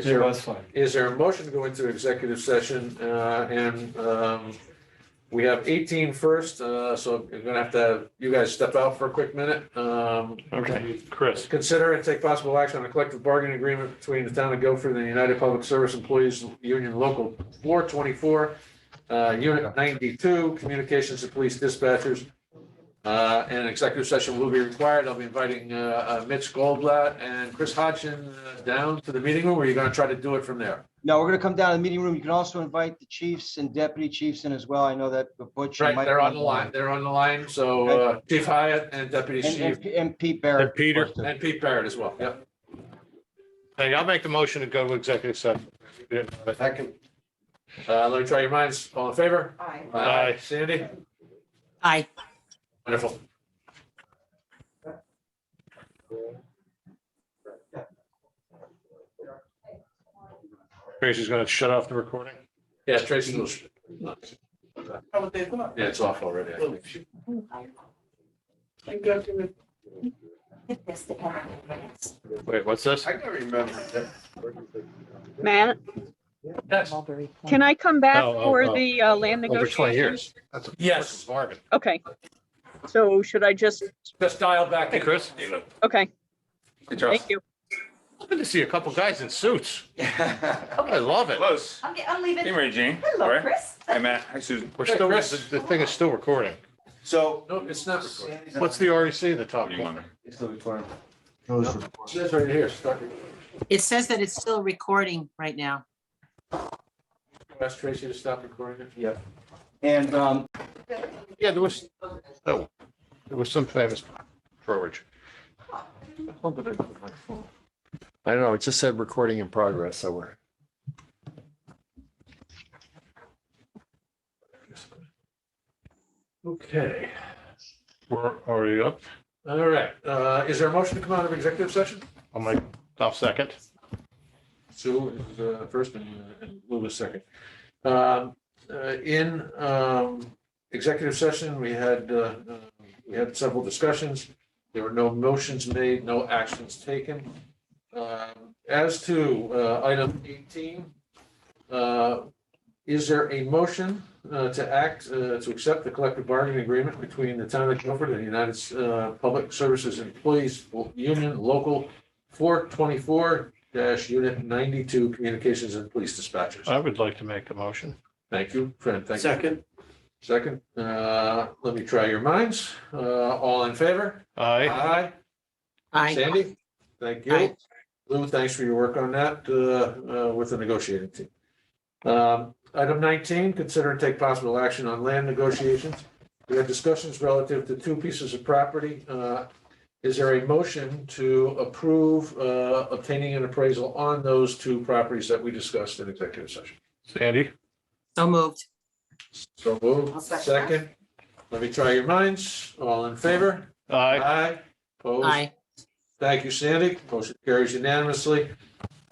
Is It there, was fun. is there a motion to go into executive session, uh, and, um, we have 18 first. uh, so you're gonna have to, have you guys step out for a quick minute. Um, Okay. Chris, consider and take possible action on a collective bargaining agreement between the town of Guilford and the United Public Service Employees Union Local Four Twenty-four, uh, Unit ninety-two, Communications to Police Dispatchers. Uh, and executive session will be required. I'll be inviting, uh, uh, Mitch Goldblatt and Chris Hodgson uh, down to the meeting room, or you're gonna try to do it from there? No, we're gonna come down to the meeting room. You can also invite the chiefs and deputy chiefs in as well. I know that the butcher. Right, might they're on be the line, they're on the line, so, uh, Chief Hyatt and Deputy And- Chief, And P- and Pete Barrett. And Peter. and Pete Barrett as well, yep. hey, I'll make the motion to go to executive session. Yeah, but- Second. Uh, let me try your minds, all in favor? Aye. Aye. Sandy? Aye. Wonderful. Tracy's gonna shut off the recording. Yeah, Tracy was. Yeah, it's off already. I think. Wait, what's this? I can remember that. Matt, Yes. can I come back Oh, oh, oh. for the uh, land Over twenty years. negotiations? That's a Yes. bargain. Okay. So should I just, Just dial back. Hey, Chris. okay, Hey, Charles. thank you. Good to see a couple guys in suits. I love it. Close. I'm, ge- I'm leaving. Hey, Mary Jane. All Hello, right. Chris. Hey, Matt. Hi, Susan. We're Hey, still, Chris. the the thing is still recording. So. No, it's not recording. What's the REC in the top What do you want? corner? It's the recording. It says right here, start recording. It says that it's still recording right now. Ask Tracy to stop recording it. Yep. And, um, Yeah, there was, oh, there was some famous brokerage. I don't know, it just said recording in progress, so we're. Okay, We're already up. all right. Uh, is there a motion to come out of executive session? I'll make, I'll second. Sue is uh, first and uh, and Lou is second. Um, uh, In um, executive session, we had, uh, uh, we had several discussions. There were no motions made, no actions taken. Um, As to uh, item 18, uh, is there a motion uh, to act, uh, to accept the collective bargaining agreement between the town of Guilford and the United uh, Public Services Employees Union Local 424 dash unit ninety-two communications and police dispatchers. I would like to make the motion. Thank you, friend. Thank you. Second, uh, let me try your minds. Uh, all in favor? Aye. Aye. Aye. Sandy? Thank you. Aye. Lou, thanks for your work on that, uh, uh, with the negotiating team. Um, item nineteen, consider and take possible action on land negotiations. We had discussions relative to two pieces of property. Uh, is there a motion to approve, uh, obtaining an appraisal on those two properties that we discussed in executive session? Sandy? So moved. So I'll move, second second. Let me try your minds. All in favor? Aye. Aye. Opposed? Aye. Thank you, Sandy. Motion carries unanimously.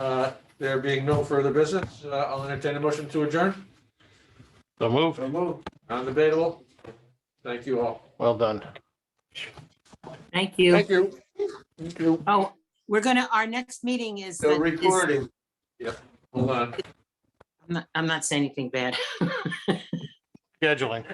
Uh, There being no further business, uh, I'll entertain a motion to adjourn. So moved. Non-debatable. Thank you all. Well done. Thank you. you. Oh, we're gonna, our next meeting is. The is- recording. Hold on. I'm not- I'm not saying anything bad. Scheduling.